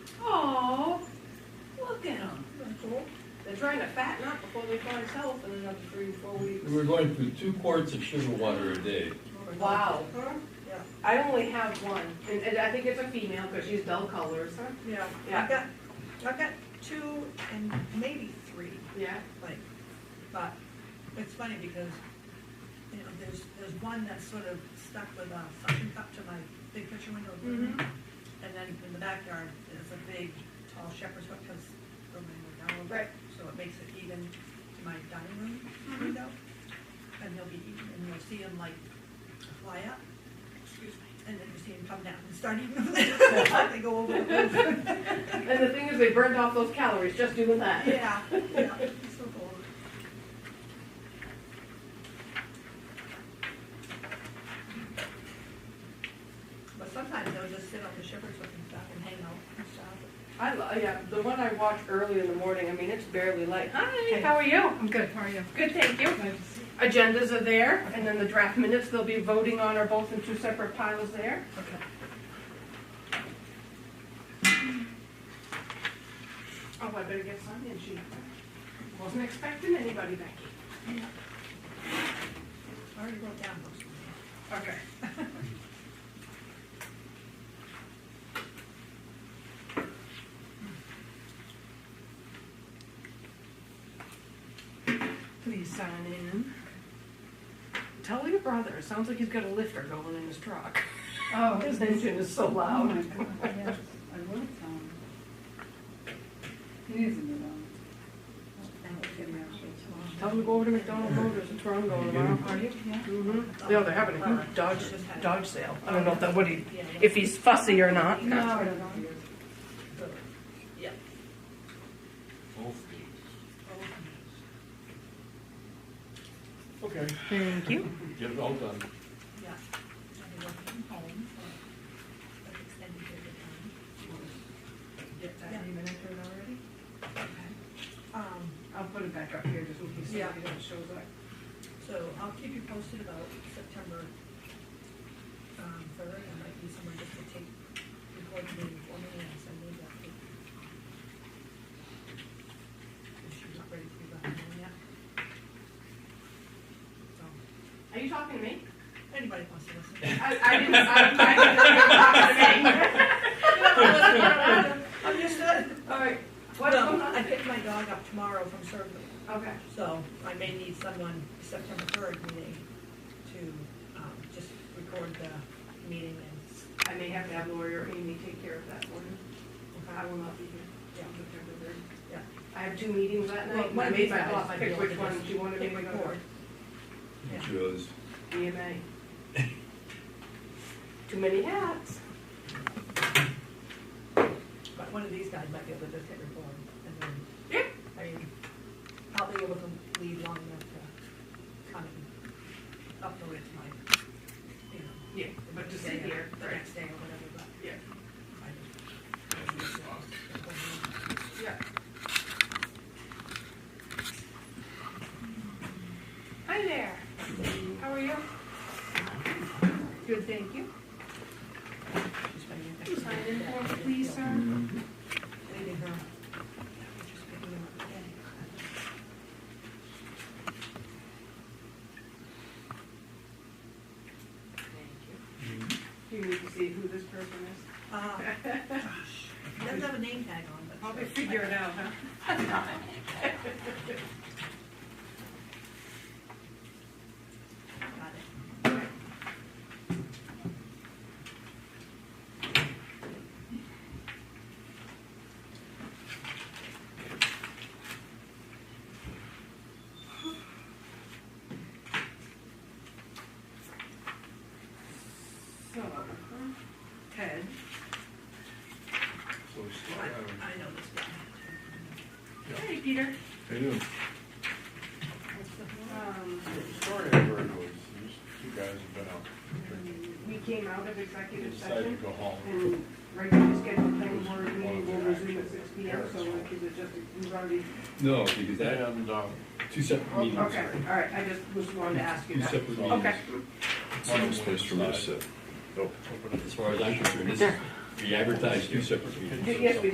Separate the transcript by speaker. Speaker 1: trying to fatten up before they find health in another three or four weeks.
Speaker 2: We were going through two quarts of sugar water a day.
Speaker 1: Wow.
Speaker 3: Huh?
Speaker 1: I only have one, and, and I think it's a female, because she's dull colors.
Speaker 3: Yeah,
Speaker 1: Yeah.
Speaker 3: I've got, I've got two and maybe three,
Speaker 1: Yeah,
Speaker 3: like, but it's funny because, you know, there's, there's one that sort of stuck with a suction cup to my big picture window.
Speaker 1: Mhm.
Speaker 3: And then in the backyard, there's a big tall shepherd's hook, because the window down a little bit,
Speaker 1: Right.
Speaker 3: So it makes it even to my dining room window. And they'll be eating, and you'll see them like fly up. Excuse me. And then you see them come down and start eating. They go over the roof.
Speaker 1: and the thing is, they burned off those calories just doing that.
Speaker 3: Yeah, yeah, so bold. But sometimes they'll just sit on the shepherd's hook and stuff and hang out and stuff.
Speaker 1: I, lo- yeah, the one I watch early in the morning, I mean, it's barely light. Hi, how are you?
Speaker 4: I'm good, how are you?
Speaker 1: Good, thank you.
Speaker 4: Glad to see you.
Speaker 1: Agendas are there, and then the draft minutes they'll be voting on are both in two separate piles there.
Speaker 4: Okay.
Speaker 1: Oh, I better get signed in, she wasn't expecting anybody, Becky.
Speaker 3: I already wrote down most of them.
Speaker 1: Okay. Please sign in. Tell your brother, it sounds like he's got a lifter going in his truck.
Speaker 4: Oh,
Speaker 1: His engine is so
Speaker 4: Oh my
Speaker 1: loud.
Speaker 4: God, yes, I will tell him. He needs a new one. That would be actually
Speaker 1: Tell him to go over to McDonald's, Road, there's a Toronto going tomorrow.
Speaker 4: too long. Are you? Yeah.
Speaker 1: Mm-hmm. Yeah, they're having a
Speaker 4: Uh,
Speaker 1: huge Dodge, Dodge sale. I don't know if that, what he,
Speaker 3: Yeah,
Speaker 1: if he's fussy or not.
Speaker 4: No, I don't know.
Speaker 3: so, Yeah. Oh,
Speaker 2: Both Okay.
Speaker 1: Thank you.
Speaker 2: Get it all done.
Speaker 3: Yeah. I've been working from home for an extended period of time.
Speaker 4: Get that
Speaker 3: Yeah.
Speaker 4: even entered already?
Speaker 3: Um,
Speaker 4: I'll put it back up here just in case
Speaker 3: Yeah.
Speaker 4: somebody else shows up.
Speaker 3: so I'll keep you posted about September, um, third, I might be somewhere just to take, record the meeting for me and send me that. If she's not ready to be back home yet. So,
Speaker 1: Are you talking to me?
Speaker 3: anybody wants to listen.
Speaker 1: I, I didn't, I, I didn't
Speaker 3: I'm just, uh,
Speaker 1: All right, what's
Speaker 3: no,
Speaker 1: going
Speaker 3: I
Speaker 1: on?
Speaker 3: picked my dog up tomorrow from surgery.
Speaker 1: Okay,
Speaker 3: So I may need someone September third meeting to, um, just record the meeting and,
Speaker 1: I may have to have Lori or Amy take care of that one. I will not be here
Speaker 3: yeah,
Speaker 1: on September third.
Speaker 3: Yeah.
Speaker 1: I have two meetings that
Speaker 3: Well,
Speaker 1: night, and
Speaker 3: one
Speaker 1: I
Speaker 3: of
Speaker 1: made
Speaker 3: these
Speaker 1: my
Speaker 3: guys
Speaker 1: thought,
Speaker 3: might be
Speaker 1: pick
Speaker 3: able
Speaker 1: which
Speaker 3: to
Speaker 1: one
Speaker 3: just
Speaker 1: she wanted me
Speaker 3: hit
Speaker 1: to
Speaker 3: record.
Speaker 1: record.
Speaker 3: Yeah.
Speaker 2: Just
Speaker 1: EMA. Too many hats.
Speaker 3: But one of these guys might be able to just hit record and then,
Speaker 1: Yeah.
Speaker 3: I mean, I'll be able to leave long enough to come and upload it to my, you know.
Speaker 1: Yeah, but to sit
Speaker 3: day or
Speaker 1: here,
Speaker 3: The
Speaker 1: right.
Speaker 3: next day or whatever, but
Speaker 1: Yeah.
Speaker 3: I just.
Speaker 1: Yeah. Hi there. How are you? Good, thank you. Sign in for me, please, sir.
Speaker 3: Leaving her. Just picking her up again.
Speaker 1: Do you need to see who this person is?
Speaker 3: Uh, Doesn't have a name tag on, but.
Speaker 1: Probably figure it out, huh?
Speaker 3: Got it.
Speaker 1: So, Ted,
Speaker 2: So
Speaker 3: I,
Speaker 2: slow.
Speaker 3: I know this guy.
Speaker 1: hey, Peter.
Speaker 2: How you doing?
Speaker 1: Um,
Speaker 2: Sorry, I heard noise. These two guys have been out drinking.
Speaker 1: we came out of executive
Speaker 2: Decided to
Speaker 1: session
Speaker 2: go home.
Speaker 1: and regularly scheduled planning board meeting will resume at six P M, so like, is it just, we've already.
Speaker 5: No, because that,
Speaker 2: And, uh,
Speaker 5: two separate
Speaker 1: Okay,
Speaker 5: meetings.
Speaker 1: all right, I just was wanted to ask you
Speaker 5: Two
Speaker 1: that.
Speaker 5: separate meetings.
Speaker 1: Okay.
Speaker 2: one
Speaker 6: Some space for me to
Speaker 2: side,
Speaker 6: sit.
Speaker 2: open up the
Speaker 5: As far as I'm concerned, this, we advertised two separate meetings.
Speaker 1: Yes, we